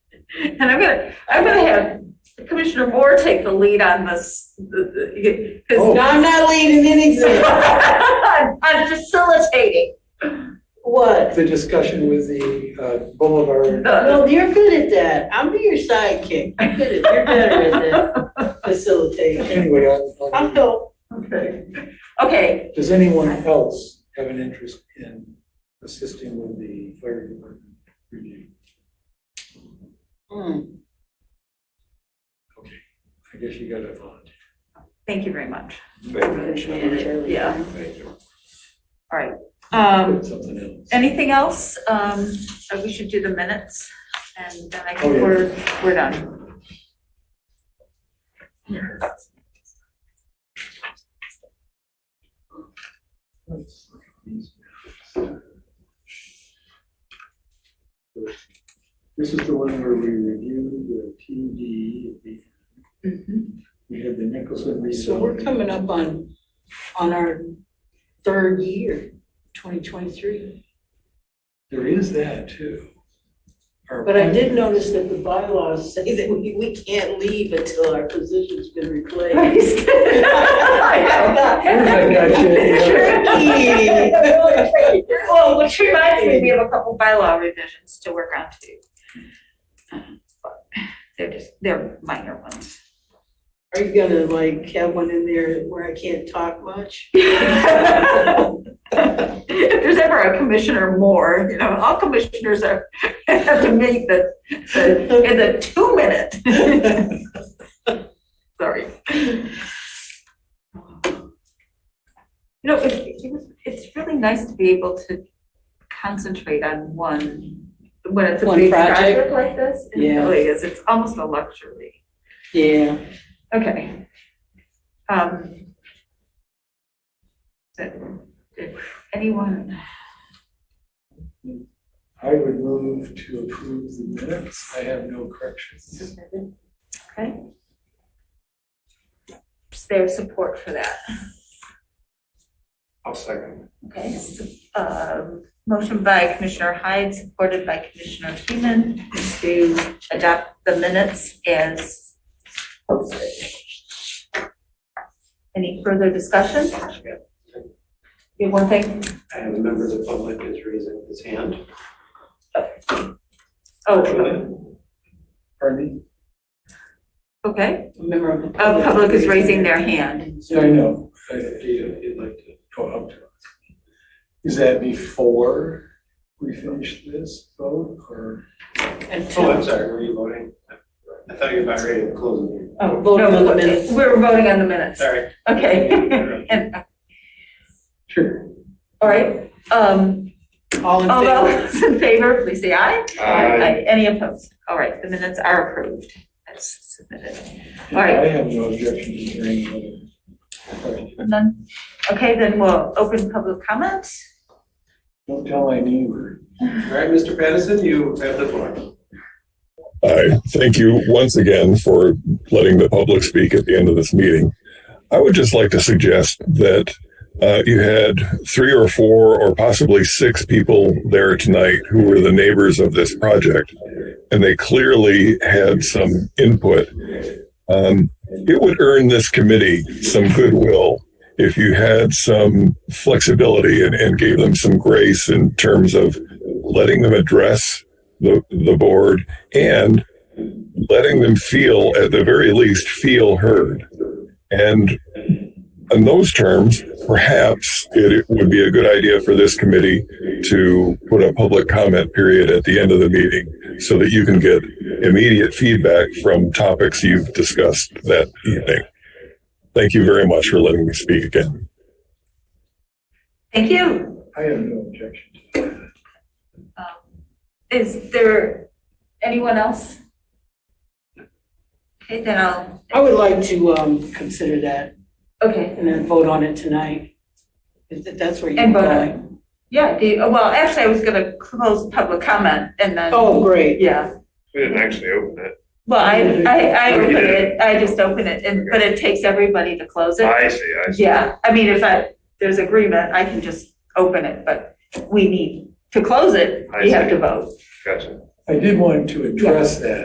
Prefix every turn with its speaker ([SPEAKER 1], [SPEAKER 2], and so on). [SPEAKER 1] And I'm gonna, I'm gonna have Commissioner Moore take the lead on this, the- the-
[SPEAKER 2] No,
[SPEAKER 3] Oh.
[SPEAKER 1] cause.
[SPEAKER 2] I'm not leading anything.
[SPEAKER 1] I'm facilitating
[SPEAKER 2] What?
[SPEAKER 3] the discussion with the uh, Boulevard.
[SPEAKER 1] the,
[SPEAKER 2] Well, you're good at that. I'm your sidekick. You're good at, you're better at that facilitating.
[SPEAKER 3] Anyway, on-
[SPEAKER 2] I'll
[SPEAKER 3] on-
[SPEAKER 2] help.
[SPEAKER 1] okay, okay,
[SPEAKER 3] does anyone else have an interest in assisting with the fire department review?
[SPEAKER 2] Mm.
[SPEAKER 3] Okay, I guess you got to volunteer.
[SPEAKER 1] thank you very much. Yeah.
[SPEAKER 2] Yeah.
[SPEAKER 1] All right, um,
[SPEAKER 3] Something else.
[SPEAKER 1] anything else? Um, uh, we should do the minutes and then I
[SPEAKER 3] Oh,
[SPEAKER 1] think
[SPEAKER 3] yeah.
[SPEAKER 1] we're, we're done.
[SPEAKER 3] This is the one where we reviewed the PD.
[SPEAKER 1] Mhm.
[SPEAKER 3] We had the Nicholson rezoning.
[SPEAKER 2] So we're coming up on, on our third year, 2023.
[SPEAKER 3] There is that too. Our
[SPEAKER 2] But I did
[SPEAKER 3] plan-
[SPEAKER 2] notice that the bylaws say that we, we can't leave until our position's been replaced.
[SPEAKER 1] I know.
[SPEAKER 2] Tricky.
[SPEAKER 1] Well, which reminds me, we have a couple bylaw revisions to work on too. But They're just, they're minor ones.
[SPEAKER 2] Are you gonna like have one in there where I can't talk much?
[SPEAKER 1] If there's ever a commissioner more, you know, all commissioners are, have to meet the, the- in the two minute. Sorry. You know, it, it was, it's really nice to be able to concentrate on one, when it's a
[SPEAKER 2] One
[SPEAKER 1] big
[SPEAKER 2] project.
[SPEAKER 1] project like this. It
[SPEAKER 2] Yeah.
[SPEAKER 1] really is, it's almost a luxury.
[SPEAKER 2] Yeah.
[SPEAKER 1] Okay. Um. Did did anyone,
[SPEAKER 3] I would move to approve the minutes. I have no corrections.
[SPEAKER 1] okay? Is there support for that?
[SPEAKER 3] I'll second.
[SPEAKER 1] Okay. Um, motion by Commissioner Hyde, supported by Commissioner Freeman to adopt the minutes as posted. Any further discussion? You have one thing?
[SPEAKER 4] And a member of the public is raising his hand.
[SPEAKER 1] Oh,
[SPEAKER 3] Pardon
[SPEAKER 1] okay.
[SPEAKER 2] A member of the
[SPEAKER 1] Uh,
[SPEAKER 2] public.
[SPEAKER 1] public is raising their hand.
[SPEAKER 3] me? I know. I
[SPEAKER 4] If you- if you'd like to.
[SPEAKER 3] go up to us. Is that before we finish this vote or?
[SPEAKER 2] Until-
[SPEAKER 4] Oh, I'm sorry, were you voting? I thought you were about ready to close the meeting.
[SPEAKER 1] Oh,
[SPEAKER 2] Voting on the
[SPEAKER 1] no,
[SPEAKER 2] minutes.
[SPEAKER 1] We're voting on the minutes.
[SPEAKER 4] Sorry.
[SPEAKER 1] Okay. And,
[SPEAKER 3] Sure.
[SPEAKER 1] all right, um,
[SPEAKER 2] All in
[SPEAKER 1] all
[SPEAKER 2] favor?
[SPEAKER 1] those in favor, please say aye.
[SPEAKER 4] Aye.
[SPEAKER 1] Any opposed? All right, the minutes are approved. That's submitted. All right.
[SPEAKER 3] I have no objection to hearing whether.
[SPEAKER 1] None? Okay, then we'll open public comment.
[SPEAKER 3] Don't tell my neighbor.
[SPEAKER 4] All right, Mr. Patterson, you have the floor.
[SPEAKER 5] Hi, thank you once again for letting the public speak at the end of this meeting. I would just like to suggest that uh, you had three or four or possibly six people there tonight who were the neighbors of this project, and they clearly had some input. Um, it would earn this committee some goodwill if you had some flexibility and, and gave them some grace in terms of letting them address the, the board and letting them feel, at the very least, feel heard. And in those terms, perhaps it would be a good idea for this committee to put a public comment period at the end of the meeting so that you can get immediate feedback from topics you've discussed that evening. Thank you very much for letting me speak again.
[SPEAKER 1] Thank you.
[SPEAKER 3] I have no objection.
[SPEAKER 1] Um, Is there anyone else? Okay, then I'll,
[SPEAKER 2] I would like to, um, consider that
[SPEAKER 1] okay,
[SPEAKER 2] and then vote on it tonight. If that- that's where you're
[SPEAKER 1] And vote on it.
[SPEAKER 2] going.
[SPEAKER 1] yeah, do you- well, actually, I was gonna close public comment and then.
[SPEAKER 2] Oh, great.
[SPEAKER 1] Yeah.
[SPEAKER 6] We didn't actually open it.
[SPEAKER 1] Well, I, I, I
[SPEAKER 6] Oh, you
[SPEAKER 1] open
[SPEAKER 6] did
[SPEAKER 1] it, I just open it, and, but it takes everybody to close it.
[SPEAKER 6] I see, I see.
[SPEAKER 1] Yeah, I mean, if I, there's agreement, I can just open it, but we need, to close it,
[SPEAKER 6] I
[SPEAKER 1] we have
[SPEAKER 6] see.
[SPEAKER 1] to vote.
[SPEAKER 6] Gotcha.
[SPEAKER 3] I did want to address that.